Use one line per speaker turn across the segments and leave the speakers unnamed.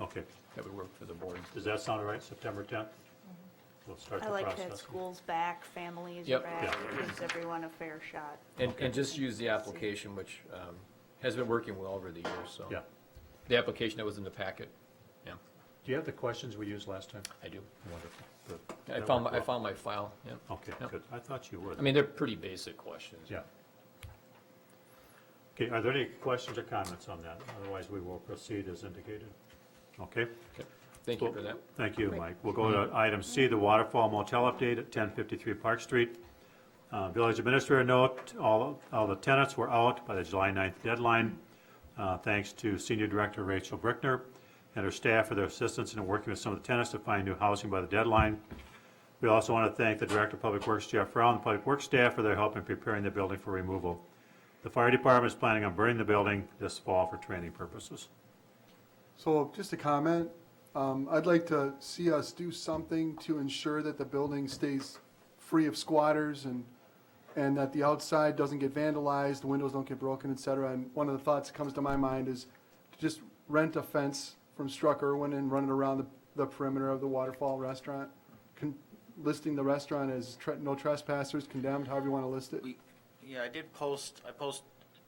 Okay,
that would work for the board.
does that sound all right, September 10th? We'll start the
Mm-hmm. I like that
process.
school's back, families are
Yep.
back,
Yeah.
gives everyone a fair shot.
And, and just use the application, which um, has been working well over the years, so.
Yeah.
The application that was in the packet, yeah,
Do you have the questions we used last time?
I do.
Wonderful. Good.
I
That
found, my
worked
I
well.
found my file, yeah.
Okay,
Yep.
good. I thought you would.
I mean, they're pretty basic questions.
Yeah. Okay, are there any questions or comments on that? Otherwise, we will proceed as indicated. Okay?
Okay. Thank you for that.
Thank you, Mike. We'll go to item C, the Waterfall Motel update at 1053 Park Street. Uh, Village administrator note, all, all the tenants were out by the July 9th deadline, uh, thanks to Senior Director Rachel Brickner and her staff for their assistance in working with some of the tenants to find new housing by the deadline. We also want to thank the Director of Public Works, Jeff Rowland, and Public Works staff for their help in preparing the building for removal. The fire department is planning on burning the building this fall for training purposes.
So just a comment, um, I'd like to see us do something to ensure that the building stays free of squatters and, and that the outside doesn't get vandalized, the windows don't get broken, et cetera. And one of the thoughts that comes to my mind is to just rent a fence from Struck Irwin and run it around the, the perimeter of the Waterfall Restaurant. Con- Listing the restaurant as tre- no trespassers condemned, however you want to list it.
We, yeah, I did post, I post,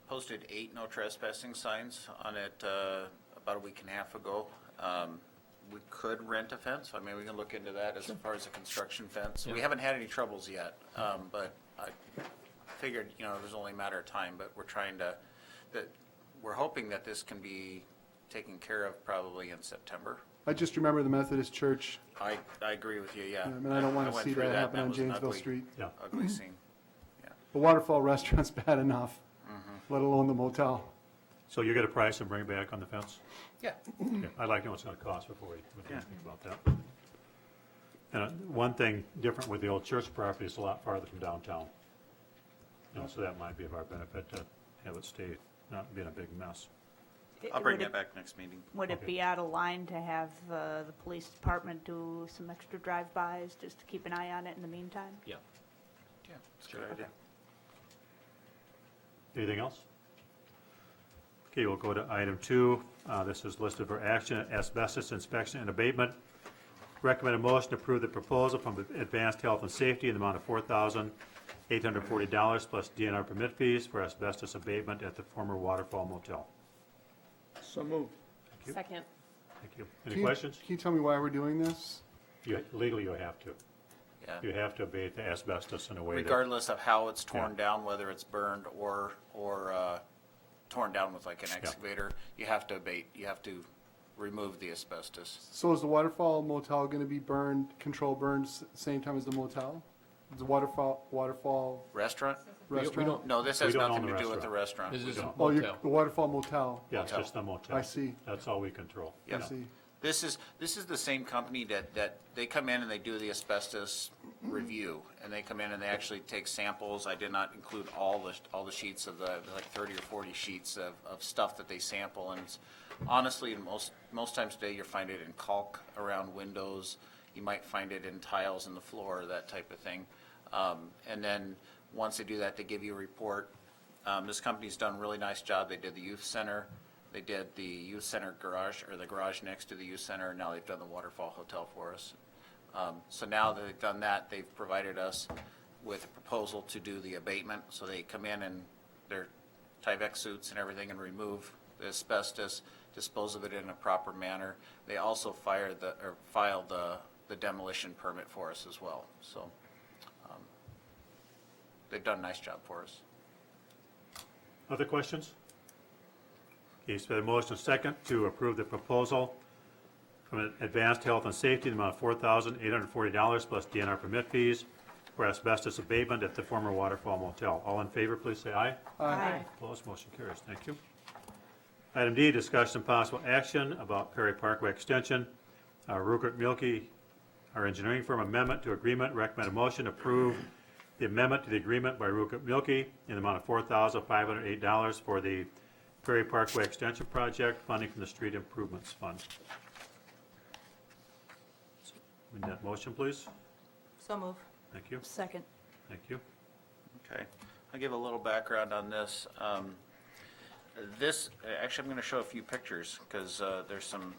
posted eight no trespassing signs on it, uh, about a week and a half ago. Um, we could rent a fence, I mean, we can look into that as far as a construction fence. We
Yeah.
haven't had any troubles yet, um, but I figured, you know, it was only a matter of time, but we're trying to, that, we're hoping that this can be taken care of probably in September.
I just remember the Methodist Church,
I, I agree with you, yeah.
I mean, I don't want to
went
see
through
that
and
happen on
was an
Janesville
ugly-
Street.
Yeah.
Ugly scene, yeah.
The waterfall restaurant's bad enough, let alone the motel.
So you get a price and bring it back on the fence?
Yeah.
Yeah, I'd like to know what's gonna cost before we we think about that. And uh, one thing different with the old church property, it's a lot farther from downtown. You know, so that might be of our benefit to have it stay, not being a big mess.
I'll bring
Would it-
that back next meeting.
Would it
Okay.
be out of line to have uh, the police department do some extra drive-bys just to keep an eye on it in the meantime?
Yeah.
Yeah, it's a good idea.
Anything else? Okay, we'll go to item two. Uh, This is listed for action, asbestos inspection and abatement. Recommended motion to approve the proposal from Advanced Health and Safety in the amount of four thousand eight hundred forty dollars plus DNR permit fees for asbestos abatement at the former Waterfall Motel. So moved.
Second.
Thank you. Any
Can you-
questions?
Can you tell me why we're doing this?
You- Legally, you have to.
Yeah,
You have to abate the asbestos in a way that,
regardless of how it's torn
Yeah.
down, whether it's burned or, or, uh, torn down with like an excavator, you have to abate, you have to remove the asbestos.
So is the waterfall motel going to be burned, control burns, same time as the motel? The waterfall, waterfall
Restaurant?
We don't- we
restaurant?
don't-
No, this
We
has
don't own
nothing
the
to do with the restaurant.
This is
don't.
Oh, you're-
motel.
the waterfall motel.
yeah, it's
Motel.
just the motel.
I see.
That's all we control.
I
Yeah.
see.
This is, this is the same company that, that, they come in and they do the asbestos review, and they come in and they actually take samples. I did not include all the, all the sheets of the, like thirty or forty sheets of, of stuff that they sample, and it's- honestly, in most, most times today, you'll find it in caulk around windows, you might find it in tiles in the floor, that type of thing. Um, and then, once they do that, they give you a report. Um, this company's done a really nice job, they did the youth center, they did the youth center garage, or the garage next to the youth center, now they've done the waterfall hotel for us. Um, so now that they've done that, they've provided us with a proposal to do the abatement, so they come in and their Tyvek suits and everything and remove the asbestos, dispose of it in a proper manner. They also fire the, or file the, the demolition permit for us as well, so, um, they've done a nice job for us.
Other questions? Okay, so the motion is second to approve the proposal from Advanced Health and Safety in the amount of four thousand eight hundred forty dollars plus DNR permit fees for asbestos abatement at the former Waterfall Motel. All in favor, please say aye.
Aye.
Opposed, motion carries. Thank you. Item D, discussion and possible action about Perry Parkway Extension. Uh, Rupert Milkie, our engineering firm, amendment to agreement, recommend a motion to approve the amendment to the agreement by Rupert Milkie in the amount of four thousand five hundred eight dollars for the Perry Parkway Extension Project, funding from the Street Improvements Fund. Need that motion, please?
So move.
Thank you,
Second.
thank you.
Okay, I'll give a little background on this. Um, This, actually, I'm going to show a few pictures, because there's some